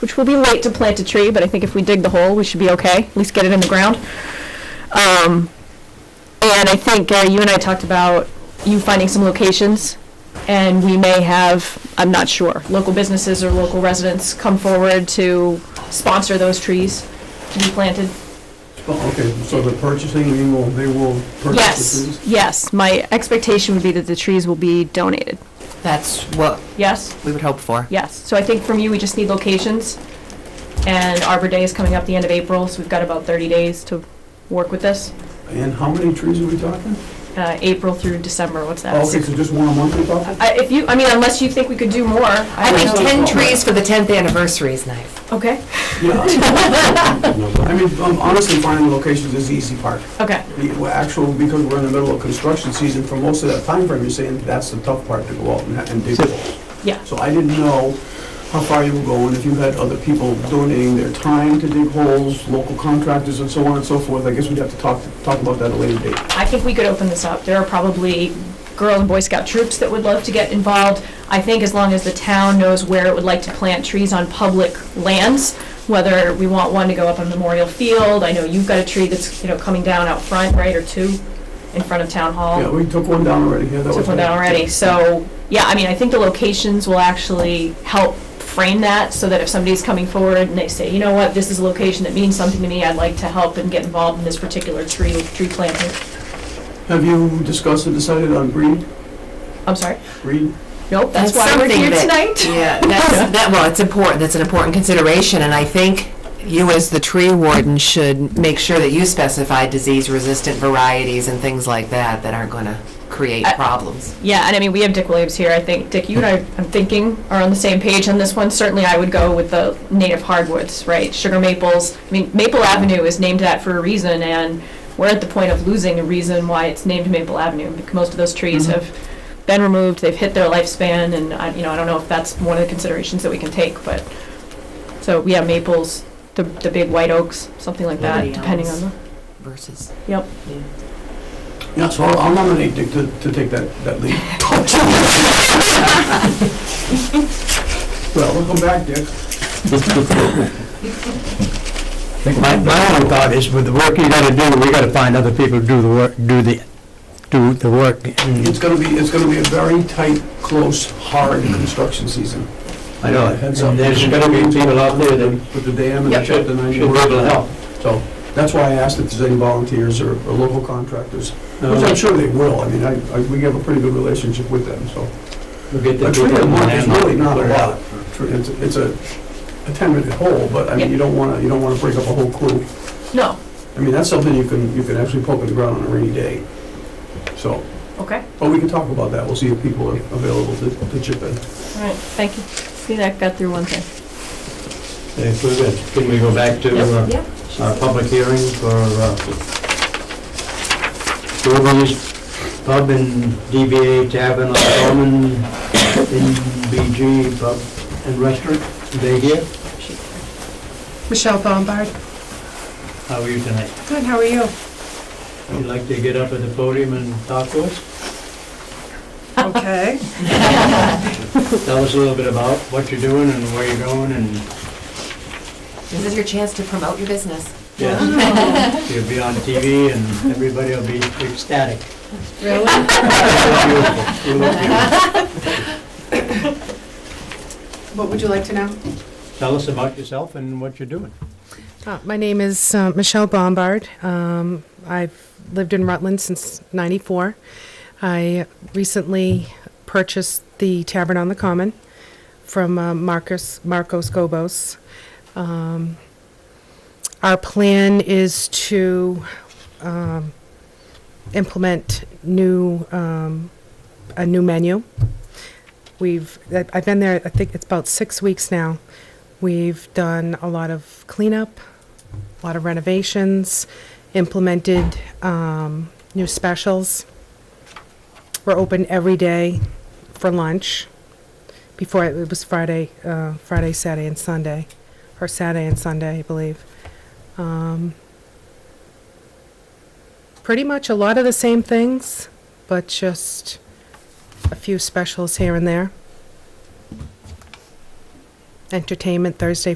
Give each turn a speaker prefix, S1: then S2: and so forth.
S1: which will be late to plant a tree, but I think if we dig the hole, we should be okay, at least get it in the ground. Um, and I think, Gary, you and I talked about you finding some locations, and we may have, I'm not sure, local businesses or local residents come forward to sponsor those trees to be planted.
S2: Oh, Okay, so the purchasing, we will, they will purchase the
S1: Yes,
S2: trees?
S1: yes, my expectation would be that the trees will be donated.
S3: That's what
S1: Yes?
S3: we would hope for.
S1: Yes, so I think from you, we just need locations, and Arbor Day is coming up the end of April, so we've got about 30 days to work with this,
S2: And how many trees are we talking?
S1: Uh, April through December, what's
S2: Oh,
S1: that?
S2: Okay,
S1: Six-
S2: so just one a month we're talking?
S1: I- If you, I mean, unless you think we could do more.
S3: I
S1: don't
S3: think
S1: know.
S3: 10 trees for the 10th anniversary is nice.
S1: Okay,
S2: Yeah. I mean, um, honestly, finding locations is the easy part.
S1: okay,
S2: The well, actual, because we're in the middle of construction season, for most of that time frame, you're saying that's the tough part to go out and and dig holes.
S1: yeah,
S2: So I didn't know how far you were going, if you had other people donating their time to dig holes, local contractors and so on and so forth. I guess we'd have to talk, talk about that at a later date.
S1: I think we could open this up. There are probably Girl and Boy Scout troops that would love to get involved. I think as long as the town knows where it would like to plant trees on public lands, whether we want one to go up on Memorial Field, I know you've got a tree that's, you know, coming down out front, right, or two in front of Town Hall.
S2: Yeah, we took one down already, yeah, that was.
S1: took one down already. So, yeah, I mean, I think the locations will actually help frame that so that if somebody's coming forward and they say, you know what, this is a location that means something to me, I'd like to help and get involved in this particular tree, tree planting.
S2: Have you discussed and decided on breed?
S1: I'm sorry.
S2: Breed?
S1: Nope, that's why we're
S3: something
S1: here
S3: that-
S1: tonight.
S3: Yeah, that's, that, well, it's important, that's an important consideration, and I think you as the tree warden should make sure that you specify disease-resistant varieties and things like that that aren't gonna create
S1: I-
S3: problems.
S1: Yeah, and I mean, we have Dick Williams here. I think, Dick, you and I, I'm thinking, are on the same page on this one. Certainly, I would go with the native hardwoods, right? Sugar maples. I mean, Maple Avenue is named that for a reason, and we're at the point of losing a reason why it's named Maple Avenue. because Most of those trees
S2: Mhm.
S1: have been removed, they've hit their lifespan, and I, you know, I don't know if that's one of the considerations that we can take, but, so, yeah, maples, the, the big white oaks, something like that,
S3: Liberty
S1: depending on
S3: elms.
S1: the,
S3: Versus.
S1: yep.
S2: Yeah, so I'll I'll nominate Dick to, to take that, that lead. Well, we'll come back, Dick.
S4: My, my only thought is with the work you gotta do, we gotta find other people to do the work, do the, do the work.
S2: It's gonna be, it's gonna be a very tight, close, hard construction season.
S4: I know, it. And there's gonna be people out there that
S2: With the dam and the
S4: should,
S2: shut, and I
S4: should
S2: know.
S4: able to help.
S2: So, that's why I asked if there's any volunteers or, or local contractors, which I'm sure they will. I mean, I, I, we have a pretty good relationship with them, so.
S4: We'll get the
S2: A tree
S4: people
S2: a month is
S4: in there.
S2: really not a lot. It's, it's a, a ten-minute hole, but I mean, you don't wanna, you don't wanna break up a whole crew.
S1: No,
S2: I mean, that's something you can, you can actually poke in the ground on a rainy day. So,
S1: okay.
S2: but we can talk about that, we'll see if people are available to, to chip in.
S1: All right, thank you. See, that got through one thing.
S4: If we could- Can we go back to uh,
S3: Yep.
S4: our public hearing for, uh, Dover's Pub and DBA Tavern on Common, NBG Pub and Restaurant? They here?
S5: Michelle Bombard.
S4: How are you tonight?
S5: Good, how are you?
S4: You'd like to get up at the podium and talk to us?
S5: Okay.
S4: Tell us a little bit about what you're doing and where you're going and
S3: This is your chance to promote your business.
S4: yes, you'll be on TV and everybody will be ecstatic.
S5: Really?
S4: Beautiful. You look beautiful.
S5: What would you like to know?
S4: Tell us about yourself and what you're doing.
S5: Uh, My name is uh, Michelle Bombard. Um, I've lived in Rutland since '94. I recently purchased the Tavern on the Common from uh, Marcus Marcos Gobos. Um, Our plan is to um, implement new, um, a new menu. We've, I- I've been there, I think it's about six weeks now. We've done a lot of cleanup, a lot of renovations, implemented um, new specials. We're open every day for lunch. Before, it it was Friday, uh, Friday, Saturday, and Sunday, or Saturday and Sunday, I believe. Um, Pretty much a lot of the same things, but just a few specials here and there. Entertainment Thursday,